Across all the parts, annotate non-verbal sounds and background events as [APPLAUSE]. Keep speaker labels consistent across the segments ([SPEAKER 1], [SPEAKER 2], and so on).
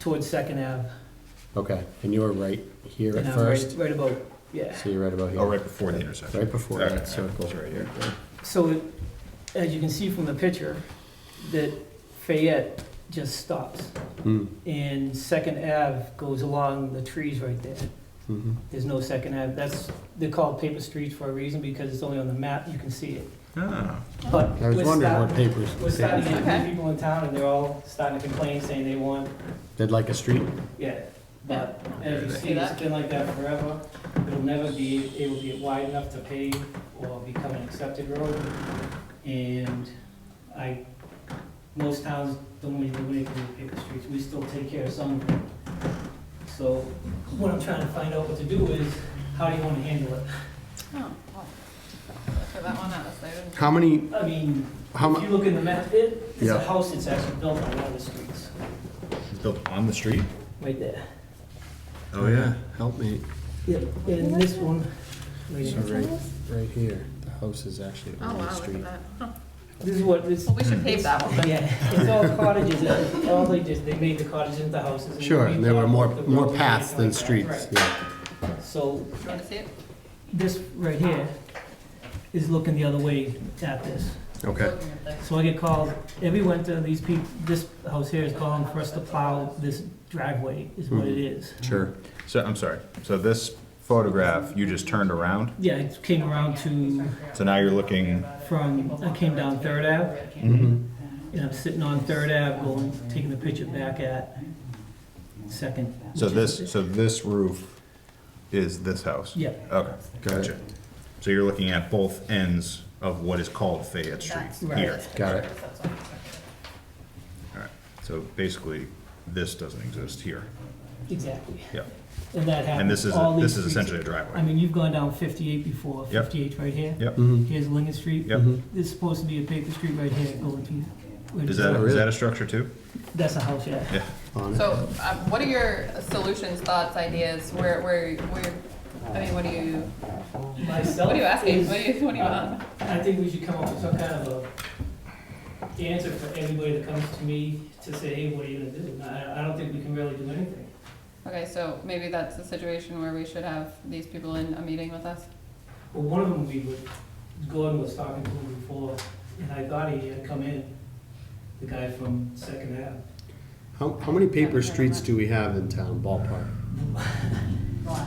[SPEAKER 1] towards Second Ave.
[SPEAKER 2] Okay, and you were right here
[SPEAKER 1] and
[SPEAKER 2] at
[SPEAKER 1] I'm
[SPEAKER 2] first,
[SPEAKER 1] Right right about, yeah.
[SPEAKER 2] so you're right about here,
[SPEAKER 3] Oh, right before the intersection.
[SPEAKER 2] right before
[SPEAKER 3] Okay,
[SPEAKER 2] that circle.
[SPEAKER 3] it's right here.
[SPEAKER 1] So it- as you can see from the picture, that Fayette just stops.
[SPEAKER 2] Mm,
[SPEAKER 1] And Second Ave goes along the trees right there.
[SPEAKER 2] mhm.
[SPEAKER 1] There's no Second Ave. That's, they're called paper streets for a reason because it's only on the map, you can see it.
[SPEAKER 3] Ah,
[SPEAKER 1] But
[SPEAKER 2] I was
[SPEAKER 1] we're
[SPEAKER 2] wondering
[SPEAKER 1] starting-
[SPEAKER 2] what papers.
[SPEAKER 1] We're starting to get
[SPEAKER 4] Okay.
[SPEAKER 1] people in town and they're all starting to complain, saying they want,
[SPEAKER 2] Did like a street?
[SPEAKER 1] yeah. But as you
[SPEAKER 3] Yeah.
[SPEAKER 1] see, it's been like that forever. It'll never be, it will be wide enough to pave or become an accepted road. And I, most towns don't really do anything with paper streets. We still take care of some. So what I'm trying to find out what to do is, how do you want to handle it?
[SPEAKER 4] Oh, well, Look at that one, that was, they didn't.
[SPEAKER 2] How many,
[SPEAKER 1] I mean,
[SPEAKER 2] how
[SPEAKER 1] if
[SPEAKER 2] mu-
[SPEAKER 1] you look in the map, it, it's a
[SPEAKER 2] Yeah.
[SPEAKER 1] house that's actually built on one of the streets,
[SPEAKER 3] it's built on the street?
[SPEAKER 1] right there.
[SPEAKER 3] Oh, yeah.
[SPEAKER 2] help me,
[SPEAKER 1] Yep, and this one,
[SPEAKER 2] so right, right here, the house is actually
[SPEAKER 4] Oh,
[SPEAKER 2] on the
[SPEAKER 4] wow, look at
[SPEAKER 2] street.
[SPEAKER 4] that. Huh.
[SPEAKER 1] this is what, this,
[SPEAKER 4] Well, we should pave that one. then.
[SPEAKER 1] yeah, it's all cottages, and all they did, they made the cottages into houses. and
[SPEAKER 2] Sure,
[SPEAKER 1] they
[SPEAKER 2] and there were more,
[SPEAKER 1] rebuilt the
[SPEAKER 2] more
[SPEAKER 1] roads and
[SPEAKER 2] paths than
[SPEAKER 1] everything like
[SPEAKER 2] streets,
[SPEAKER 1] that.
[SPEAKER 2] yeah.
[SPEAKER 1] Right. So,
[SPEAKER 4] Do you want to see it?
[SPEAKER 1] this right here is looking the other way at this.
[SPEAKER 2] Okay.
[SPEAKER 4] Looking at this.
[SPEAKER 1] So I get called, every winter, these people, this house here is calling for us to plow this driveway, is what it is.
[SPEAKER 2] Hmm. Sure.
[SPEAKER 3] So, I'm sorry. So this photograph, you just turned around?
[SPEAKER 1] Yeah, it came around to,
[SPEAKER 3] So now you're looking,
[SPEAKER 1] from, I came down Third Ave,
[SPEAKER 2] Mhm.
[SPEAKER 1] and I'm sitting on Third Ave, going, taking the picture back at Second.
[SPEAKER 3] so this, so this roof is this house?
[SPEAKER 1] Yeah,
[SPEAKER 3] Okay,
[SPEAKER 2] Got it.
[SPEAKER 3] gotcha. So you're looking at both ends of what is called Fayette Street
[SPEAKER 4] That's-
[SPEAKER 3] here.
[SPEAKER 4] that's-
[SPEAKER 2] Got it.
[SPEAKER 4] that's what I'm talking
[SPEAKER 3] All right. So basically, this doesn't exist here.
[SPEAKER 1] exactly.
[SPEAKER 3] Yeah.
[SPEAKER 1] And that happens.
[SPEAKER 3] And this is,
[SPEAKER 1] all
[SPEAKER 3] this
[SPEAKER 1] these
[SPEAKER 3] is
[SPEAKER 1] streets.
[SPEAKER 3] essentially a
[SPEAKER 1] I
[SPEAKER 3] driveway.
[SPEAKER 1] mean, you've gone down fifty-eight before,
[SPEAKER 3] Yep.
[SPEAKER 1] fifty-eight right here.
[SPEAKER 3] Yep.
[SPEAKER 2] Mhm,
[SPEAKER 1] Here's Lincoln Street.
[SPEAKER 3] Yep.
[SPEAKER 2] mhm.
[SPEAKER 1] This is supposed to be a paper street right here, going to. where
[SPEAKER 3] Is
[SPEAKER 1] it
[SPEAKER 3] that,
[SPEAKER 2] Oh,
[SPEAKER 3] is
[SPEAKER 2] really?
[SPEAKER 3] that a structure too?
[SPEAKER 1] That's a house, yeah.
[SPEAKER 3] Yeah.
[SPEAKER 2] On
[SPEAKER 4] about.
[SPEAKER 2] it.
[SPEAKER 4] So, um, what are your solutions, thoughts, ideas, where, where, where, I mean, what do you,
[SPEAKER 1] Myself
[SPEAKER 4] what are you asking,
[SPEAKER 1] is- uh,
[SPEAKER 4] what do you, what do you want?
[SPEAKER 1] I think we should come up with some kind of a answer for everybody that comes to me to say, hey, what are you gonna do? And I, I don't think we can really do anything.
[SPEAKER 4] Okay, so maybe that's a situation where we should have these people in a meeting with us?
[SPEAKER 1] Well, one of them we would, Gordon was talking to him before, and I thought he had come in, the guy from Second Ave.
[SPEAKER 2] How, how many paper streets do we have in town ballpark?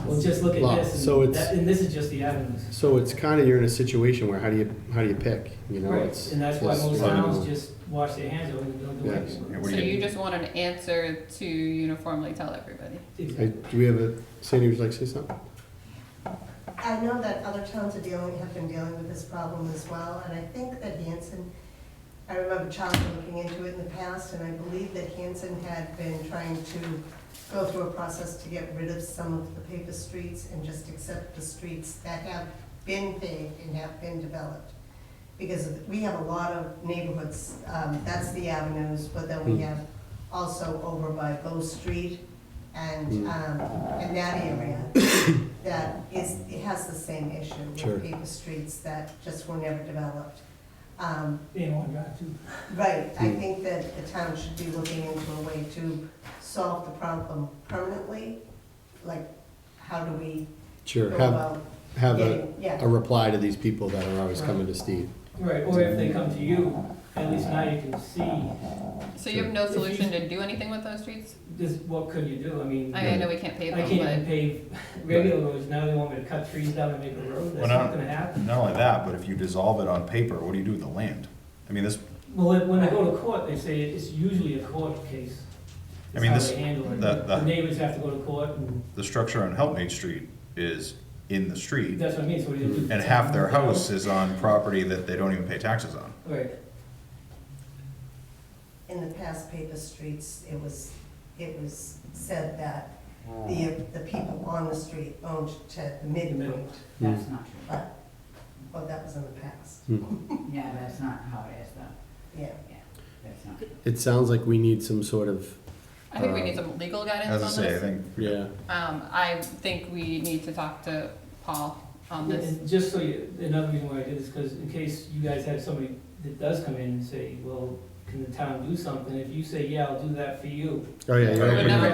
[SPEAKER 1] Well, just look at
[SPEAKER 2] Lot.
[SPEAKER 1] this,
[SPEAKER 2] So
[SPEAKER 1] and
[SPEAKER 2] it's-
[SPEAKER 1] that, and this is just the avenues.
[SPEAKER 2] So it's kind of, you're in a situation where how do you, how do you pick, you know?
[SPEAKER 1] Right,
[SPEAKER 2] it's-
[SPEAKER 1] and that's why
[SPEAKER 2] it's-
[SPEAKER 1] most
[SPEAKER 2] I don't
[SPEAKER 1] towns
[SPEAKER 2] know.
[SPEAKER 1] just wash their hands over and don't do
[SPEAKER 2] Yes.
[SPEAKER 3] Yeah,
[SPEAKER 1] anything.
[SPEAKER 3] what
[SPEAKER 4] So
[SPEAKER 3] do you-
[SPEAKER 4] you just want an answer to uniformly tell everybody?
[SPEAKER 2] Hey,
[SPEAKER 1] Exactly.
[SPEAKER 2] Do we have a, Sandy, would you like to say something?
[SPEAKER 5] I know that other towns are dealing, have been dealing with this problem as well, and I think that Hanson, I remember Charles looking into it in the past, and I believe that Hanson had been trying to go through a process to get rid of some of the paper streets and just accept the streets that have been paved and have been developed. Because we have a lot of neighborhoods, um, that's the avenues, but then we have also over by Bow Street and, um, and that area that is, it has the same issue
[SPEAKER 2] Sure.
[SPEAKER 5] with paper streets that just were never developed. Um,
[SPEAKER 1] They don't want to drive too.
[SPEAKER 5] Right, I
[SPEAKER 2] Hmm.
[SPEAKER 5] think that the town should be looking into a way to solve the problem permanently, like, how do we go
[SPEAKER 2] Sure, have,
[SPEAKER 5] about
[SPEAKER 2] have a,
[SPEAKER 5] getting, yeah.
[SPEAKER 2] a reply to these people that are always coming to Steve.
[SPEAKER 1] Right, or if they come to you, at least now you can see,
[SPEAKER 4] So you have no solution to do anything with those streets?
[SPEAKER 1] this, what could you do? I mean,
[SPEAKER 4] I
[SPEAKER 1] I
[SPEAKER 3] Mm-hmm.
[SPEAKER 4] I know we can't pave
[SPEAKER 1] can't
[SPEAKER 4] them, but.
[SPEAKER 1] even pave
[SPEAKER 4] [LAUGHS]
[SPEAKER 1] regular roads, now they want me to cut trees down and make a road, that's
[SPEAKER 3] Well,
[SPEAKER 1] not
[SPEAKER 3] no.
[SPEAKER 1] gonna happen.
[SPEAKER 3] Not only that, but if you dissolve it on paper, what do you do with the land? I mean, this,
[SPEAKER 1] Well, when- when I go to court, they say it's usually a court case.
[SPEAKER 3] I mean,
[SPEAKER 1] That's
[SPEAKER 3] this-
[SPEAKER 1] how they handle it.
[SPEAKER 3] the- the-
[SPEAKER 1] The neighbors have to go to court, and
[SPEAKER 3] the structure on Helpmate Street is in the street,
[SPEAKER 1] that's what I mean, so what do you do?
[SPEAKER 3] and half their house is on property that they don't even pay taxes on.
[SPEAKER 1] Right,
[SPEAKER 5] In the past paper streets, it was, it was said that the, the people on the street owned to the midpoint,
[SPEAKER 6] That's not true.
[SPEAKER 5] but, well, that was in the past,
[SPEAKER 2] Hmm.
[SPEAKER 6] Yeah, that's not how it is though.
[SPEAKER 5] yeah.
[SPEAKER 6] That's not.
[SPEAKER 2] It sounds like we need some sort of,
[SPEAKER 4] I think we
[SPEAKER 2] Um,
[SPEAKER 4] need some legal guidance
[SPEAKER 3] As Uh, I
[SPEAKER 4] on
[SPEAKER 3] say, I
[SPEAKER 4] this.
[SPEAKER 3] think
[SPEAKER 2] yeah,
[SPEAKER 4] Um, I think we need to talk to Paul on this.
[SPEAKER 1] And just so you, another reason why I did this, because in case you guys have somebody that does come in and say, well,
[SPEAKER 7] can the town do something? If you say, yeah, I'll do that for you,
[SPEAKER 1] Oh, yeah, you're
[SPEAKER 2] We're Oh,
[SPEAKER 1] opening
[SPEAKER 2] never
[SPEAKER 1] up.